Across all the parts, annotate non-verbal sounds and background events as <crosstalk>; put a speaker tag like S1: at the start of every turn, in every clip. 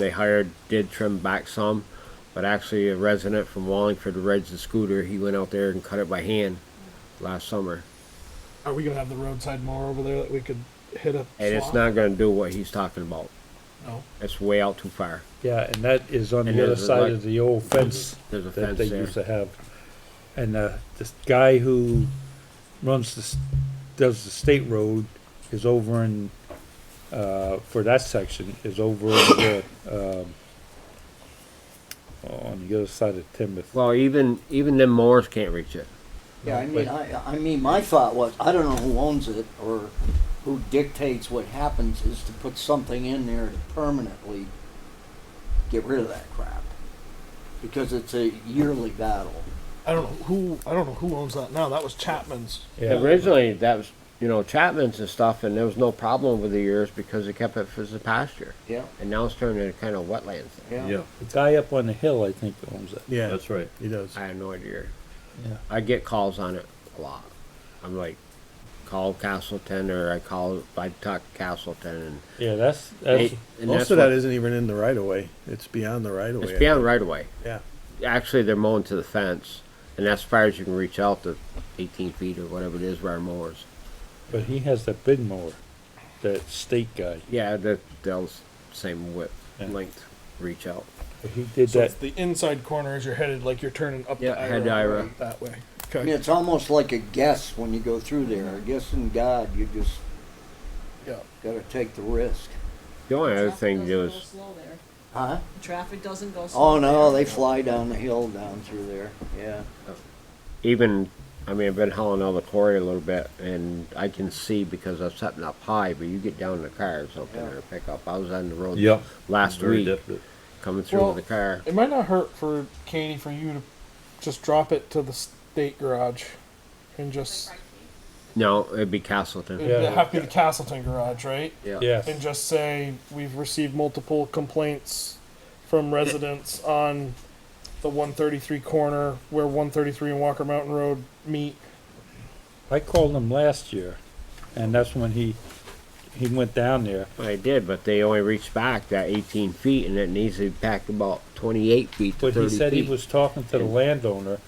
S1: they hired did trim back some, but actually a resident from Wallingford rides the scooter. He went out there and cut it by hand last summer,
S2: Are we gonna have the roadside mower over there that we could hit a?
S1: and it's
S2: slot?
S1: not going to do what he's talking about.
S2: No.
S1: It's way out too far.
S3: Yeah, and that is on
S1: And
S3: the other
S1: there's a
S3: side
S1: like-
S3: of the old fence
S1: There's a
S3: that
S1: fence
S3: they
S1: there.
S3: used to have. And, uh, this guy who runs this, does the state road is over in, uh, for that section, is over in the, um, on the other side of Timoth.
S1: Well, even even them mowers can't reach it.
S4: Yeah, I mean, I, I mean, my thought was, I don't know who owns it or who dictates what happens is to put something in there to permanently get rid of that crap. Because it's a yearly battle.
S2: I don't know who. I don't know who owns that now. That was Chapman's.
S3: Yeah,
S1: Originally, that was you know Chapman's and stuff, and there was no problem over the years because they kept it as a pasture,
S4: Yeah,
S1: and now it's turned into kind of wetlands.
S5: Yeah,
S3: the guy up on the hill, I think, owns it.
S6: Yeah,
S5: that's right.
S6: he does.
S1: I have no idea.
S3: Yeah.
S1: I get calls on it a lot. I'm like, call Castleton or I call, I talk Castleton and.
S3: Yeah, that's,
S1: they-
S3: that's,
S1: and
S6: Most
S1: that's
S6: of that
S1: what-
S6: isn't even in the right of way. It's beyond the right of way.
S1: It's beyond right away.
S6: Yeah.
S1: Actually, they're mowing to the fence and that's as far as you can reach out to eighteen feet or whatever it is where our mowers.
S3: but he has that big mower, that state guy.
S1: Yeah, that, they'll s- same width,
S3: Yeah.
S1: length, reach out.
S3: But He did
S2: So
S3: that,
S2: it's the inside corner as you're headed, like you're turning up.
S1: Yeah,
S2: to
S1: head to Ira.
S2: that way.
S4: I mean,
S2: Okay.
S4: it's almost like a guess when you go through there. Guessing God, you just
S2: Yeah.
S4: gotta take the risk.
S1: The only other
S7: Traffic
S1: thing to do
S7: doesn't go
S1: is,
S7: slow there.
S4: Huh?
S7: Traffic doesn't go slow.
S4: Oh, no,
S7: there.
S4: they fly down the hill down through there, yeah.
S1: even, I mean, I've been hauling out the quarry a little bit and I can see because I'm setting up high, but you get down in the car or something
S4: Yeah.
S1: or pick up. I was on the road
S5: Yep.
S1: last
S5: Very
S1: week.
S5: definite.
S1: coming through
S2: Well-
S1: with the car.
S2: It might not hurt for Katie for you to just drop it to the state garage, and just
S1: No, it'd be Castleton.
S2: it'd
S3: Yeah.
S2: have to be the Castleton garage, right?
S3: yes.
S2: And just say we've received multiple complaints from residents on the 133 corner where 133 and Walker Mountain Road meet.
S3: I called him last year, and that's when he, he went down there.
S1: I did, but they only reached back that 18 feet, and it needs to be back about 28 feet to
S3: But
S1: 30
S3: he said he
S1: feet.
S3: was talking to the landowner,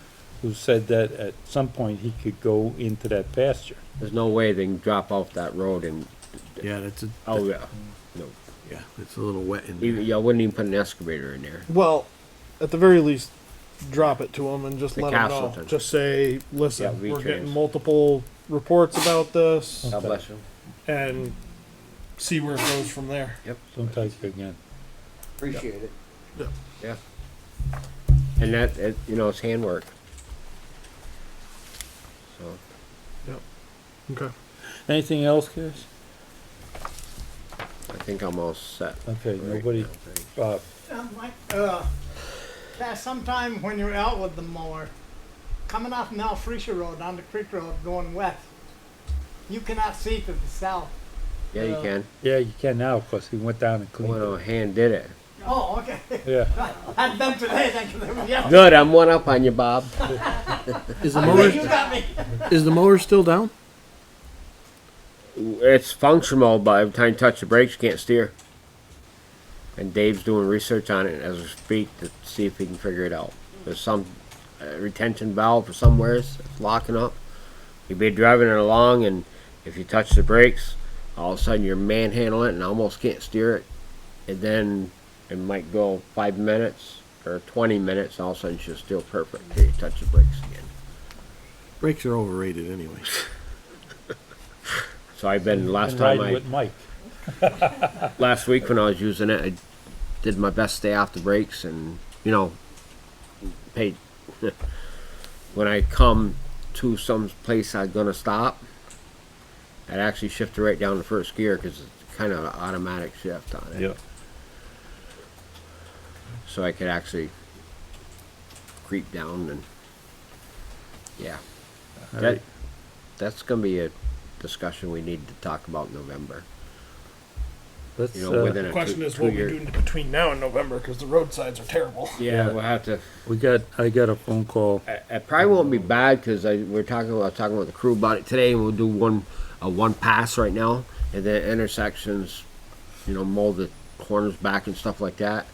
S3: who said that at some point he could go into that pasture.
S1: There's no way they can drop off that road and
S6: Yeah, that's a,
S1: oh yeah, no,
S6: yeah, it's a little wet in
S1: even,
S6: there.
S1: y'all wouldn't even put an excavator in there.
S2: Well, at the very least, drop it to them and just
S1: The
S2: let them know.
S1: Castleton.
S2: Just say,
S1: Yeah,
S2: listen,
S1: we
S2: we're getting
S1: changed.
S2: multiple reports about this
S1: God
S6: Oh.
S1: bless you.
S2: and see where it goes from there.
S3: Don't take it again.
S4: Appreciate it.
S1: Yeah. And that, it, you know, it's handwork. So
S2: Okay.
S3: Anything else, Chris?
S1: I think I'm all set.
S3: Okay,
S1: right
S3: nobody,
S1: now, thanks.
S3: uh,
S8: Um, like, uh, that sometime when you're out with the mower, coming off Mount Freesia Road on the Creek Road going west, you cannot see to the south.
S1: Yeah, you can.
S3: yeah, you can now, cause he went down and cleaned
S1: Well,
S3: it.
S1: hand did it.
S8: Oh, okay. <laughs>
S3: Yeah,
S8: I've done today, thank you. Yeah,
S1: Good, I'm one up on you, Bob.
S5: Is the
S8: you got me.
S5: is the mower still down?
S1: it's functional, but every time you touch the brakes, you can't steer. And Dave's doing research on it as we speak to see if he can figure it out. There's some uh, retention valve or somewhere it's locking up. You'd be driving it along, and if you touch the brakes, all of a sudden you're manhandling it and almost can't steer it. And then it might go five minutes or 20 minutes, and all of a sudden she'll still perfect until you touch the brakes again.
S6: Brakes are overrated anyway.
S1: So I've been last
S3: and
S1: time I
S3: riding with Mike.
S1: last week when I was using it, I did my best to stay off the brakes and, you know, paid. <laughs> when I come to some place I'm going to stop, I'd actually shift it right down to first gear because it's kind of an automatic shift on it.
S5: Yeah.
S1: So I could actually creep down and, yeah. That, that's going to be a discussion we need to talk about in November.
S3: Let's,
S1: You know,
S3: uh,
S1: within a
S2: Question
S1: two,
S2: is what we
S1: two-year-
S2: do between now and November because the roadsides are terrible.
S1: Yeah, we'll have to
S3: we got, I got a phone call.
S1: I- It probably won't be bad because I we're talking. I was talking with the crew about it today, and we'll do one a one pass right now, and then intersections, you know, mold the corners back and stuff like that.